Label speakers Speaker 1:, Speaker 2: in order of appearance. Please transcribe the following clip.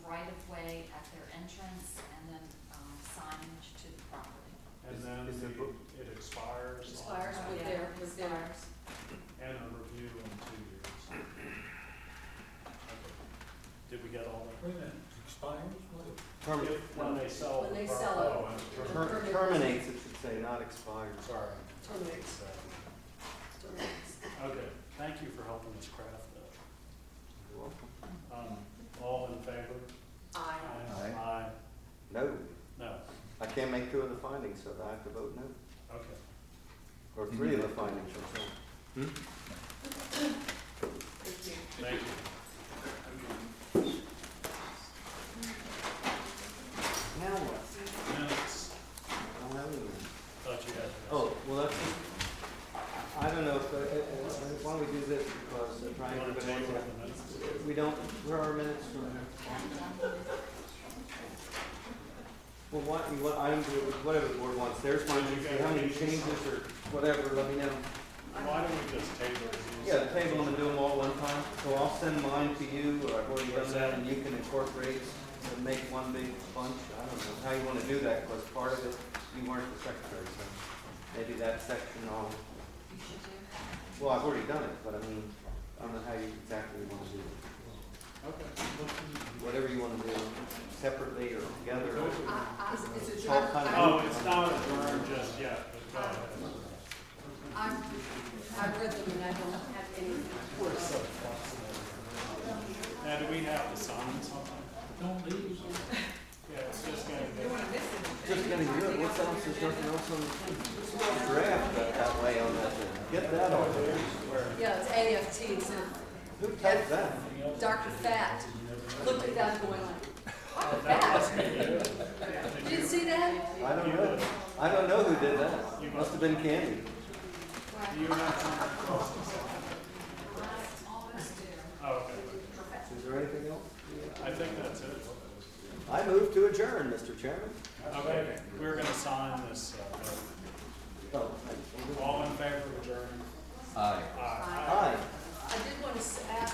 Speaker 1: entrance and then um, signage to the property.
Speaker 2: And
Speaker 3: Is-
Speaker 2: then
Speaker 3: is it
Speaker 2: the-
Speaker 3: pro-
Speaker 2: it expires. on-
Speaker 4: Expires with their, with their,
Speaker 2: And a review in two years. Okay. Did we get all that?
Speaker 5: Wait a minute, expires, what?
Speaker 3: Termi-
Speaker 2: If- When they sell.
Speaker 4: When
Speaker 2: the
Speaker 4: they
Speaker 2: pro-
Speaker 4: sell it.
Speaker 2: oh, and
Speaker 3: ter-
Speaker 2: term-
Speaker 4: Terminates.
Speaker 3: Terminates, it should say, not expires.
Speaker 2: Sorry.
Speaker 4: Terminates.
Speaker 2: Okay, thank you for helping us craft that.
Speaker 3: You're welcome.
Speaker 2: Um, All in favor?
Speaker 4: I,
Speaker 5: Aye.
Speaker 2: Aye.
Speaker 3: No,
Speaker 2: No,
Speaker 3: I can't make two of the findings, so I have to vote no,
Speaker 2: okay.
Speaker 3: or three of the findings, or something.
Speaker 4: thank you.
Speaker 2: Thank you.
Speaker 3: Now what?
Speaker 2: Minutes,
Speaker 3: I don't have any.
Speaker 2: thought you had.
Speaker 3: Oh, well, that's, I- I don't know, if, uh, uh, uh, why don't we do this, because uh,
Speaker 2: You
Speaker 3: Brian,
Speaker 2: want to
Speaker 3: everybody-
Speaker 2: take the minutes?
Speaker 3: we don't, where are our minutes from? Well, what, you want, item, whatever the board wants, there's one, if you have any changes or whatever, let me know.
Speaker 2: Why don't we just table these?
Speaker 3: Yeah, table them and do them all one time, so I'll send mine to you, or I've already done that, and you can incorporate and make one big bunch, I don't know how you wanna do that, because part of it, you weren't the secretary, so maybe that section I'll,
Speaker 1: You should do.
Speaker 3: well, I've already done it, but I mean, I don't know how you exactly wanna do it. Whatever you wanna do, separately or together,
Speaker 2: Okay.
Speaker 4: I, I, it's a
Speaker 3: All
Speaker 4: job.
Speaker 3: kind of-
Speaker 2: Oh, it's not adjourned just yet, but go ahead.
Speaker 4: I've, I've read them and I don't have any.
Speaker 2: We're so flexible. Now, do we have to sign something?
Speaker 5: Don't leave.
Speaker 2: Yeah, it's just gonna be.
Speaker 3: just gonna do it, what's else, there's nothing else on the draft that, that way on that, get that on there.
Speaker 4: Yeah, it's AFT, it's
Speaker 3: Who typed that?
Speaker 4: a Dr. Fat. Look at that going on. Dr.
Speaker 2: Oh, That
Speaker 4: Fat,
Speaker 2: must be it.
Speaker 4: did you see that?
Speaker 3: I don't know. I don't know who did that. Must have been Candy.
Speaker 2: Do you have something across the side?
Speaker 1: I always do.
Speaker 2: Oh, okay.
Speaker 3: Is there anything else?
Speaker 2: I think that's it.
Speaker 3: I move to adjourn, Mr. Chairman.
Speaker 2: Okay, we're gonna sign this. uh,